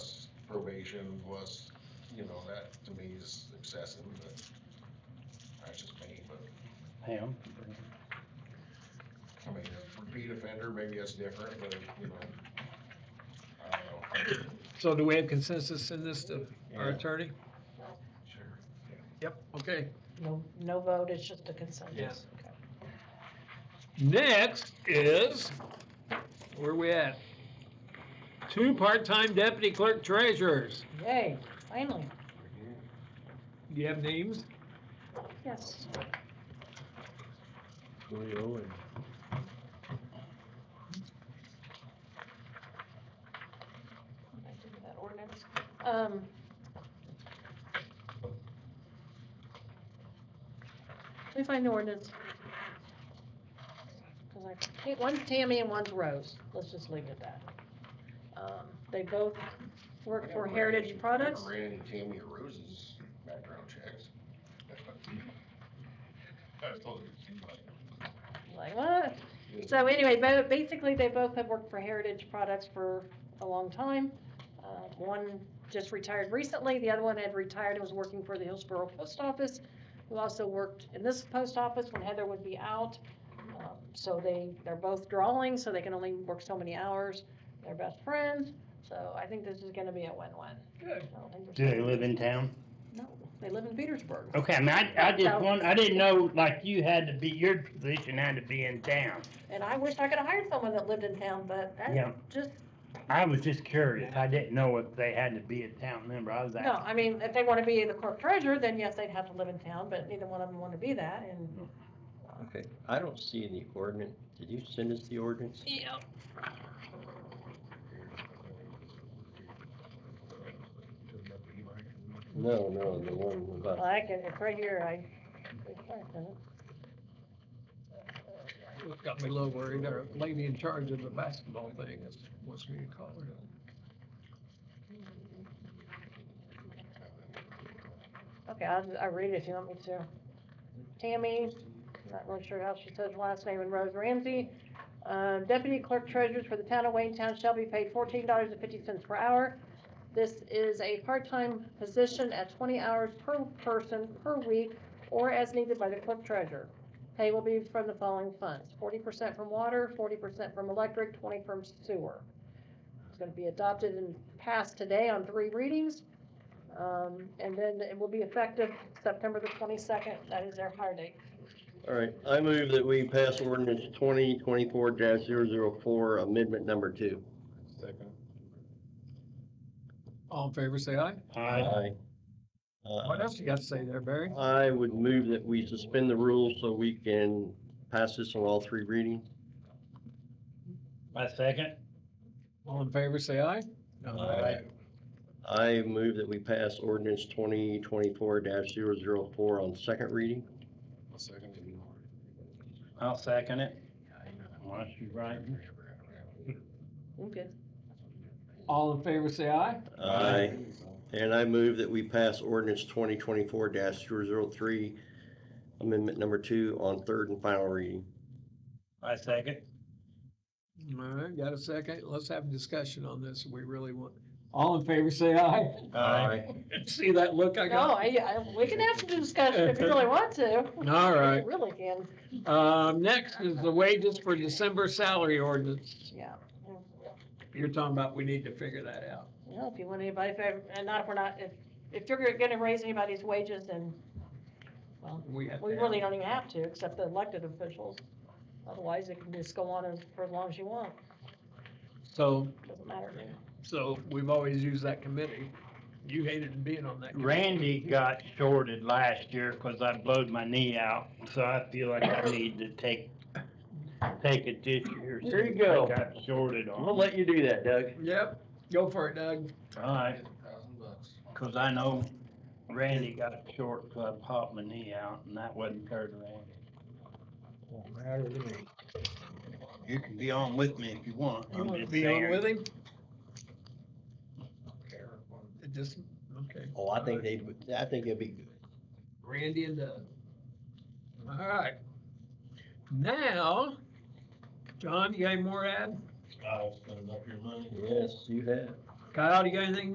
was, you know, that to me is excessive, but that's just me, but, Pam? I mean, a repeat offender, maybe that's different, but, you know. I don't know. So do we have consensus in this, to our Yeah. attorney? Sure. Yep. Okay, No, no vote, it's just a consensus. Yes. Okay. next is, where we at? Two part-time deputy clerk treasurers. Yay, finally, Do you have names? yes. Julio and I did that ordinance. Um. Let me find the ordinance. Cause I, hey, one's Tammy and one's Rose, let's just leave it at that. Um, they both work for Heritage Products. Never ran into Tammy or Rose's background checks. I told her, it seemed like. Like, what? So anyway, bo- basically, they both have worked for Heritage Products for a long time. Uh, One just retired recently, the other one had retired and was working for the Hillsborough Post Office, who also worked in this post office when Heather would be out. Um, So they, they're both drawing, so they can only work so many hours. They're best friends, so I think this is gonna be a win-win. Good. I don't think there's- Do they live in town? No, they live in Petersburg. Okay, I mean, I, I No. just want, I didn't know, like, you had to be, your position had to be in town. And I wish I could've hired someone that lived in town, but Yeah. that's just I was just curious. I didn't know if they had to be a town member. I was No, asking. I mean, if they wanna be the clerk treasurer, then yes, they'd have to live in town, but neither one of them wanna be that, and. Okay, I don't see the ordinance. Did you send us the ordinance? Yeah. No, no, the one Well, about, I can, it's right here, I. What Got me a little worried, our lady in charge of the basketball thing is, wants me to call her. Okay, I'll, I'll read it if you want me to. Tammy, not really sure how she says her last name, and Rose Ramsey. Uh, deputy clerk treasurers for the town of Wayne Town shall be paid fourteen dollars and fifty cents per hour. This is a part-time position at twenty hours per person per week, or as needed by the clerk treasurer. Pay will be from the following funds, forty percent from water, forty percent from electric, twenty from sewer. It's gonna be adopted and passed today on three readings. Um, and then it will be effective September the twenty-second, that is their hire date. all right, I move that we pass ordinance twenty twenty-four 4 amendment number two. Second. All in favor, say aye. I- Uh, What else you got to say there, Barry? I would move that we suspend the rules so we can pass this on all three readings. I second. All in favor, say aye. Aye. I move that we pass ordinance twenty twenty-four 4 on second reading. I'll second it. I'll second it. Unless you're right. Okay. All in favor, say aye. Aye. And I move that we pass ordinance twenty twenty-four 3 amendment number two on third and final reading. I second. All right, got a second? Let's have a discussion on this. We really want, all in favor, say aye. See that look I No, got? I, I, we can have some discussion if you really want to. All right. We Really can, Um, next is the wages for December salary ordinance. yeah. You're talking about we need to figure that out. Well, if you want anybody, if, I- and not if we're not, if, if you're gonna raise anybody's wages, then We have to we have- really don't even have to, except the elected officials. Otherwise, it can just go on as- for as long as you want, So, doesn't matter. so we've always used that committee. You hated being on that. committee. Randy got shorted last year because I blowed my knee out, so I feel like I need to take, take it this year. There you since I go. Got shorted on. I'll let you do that, Doug. Yep, go for it, Doug. Alright, Thousand bucks. cause I know Randy got a short, so I popped my knee out and that wasn't fair to Randy. Won't matter to me. You can be on with me if you want. You I'm want to just be on saying. with him? Care. It just, okay. Oh, I think they, I think it'd be good. Randy and Doug. All right. Now, John, you got any more to add? I'll spend up your money. Yes, you have. Kyle, you got anything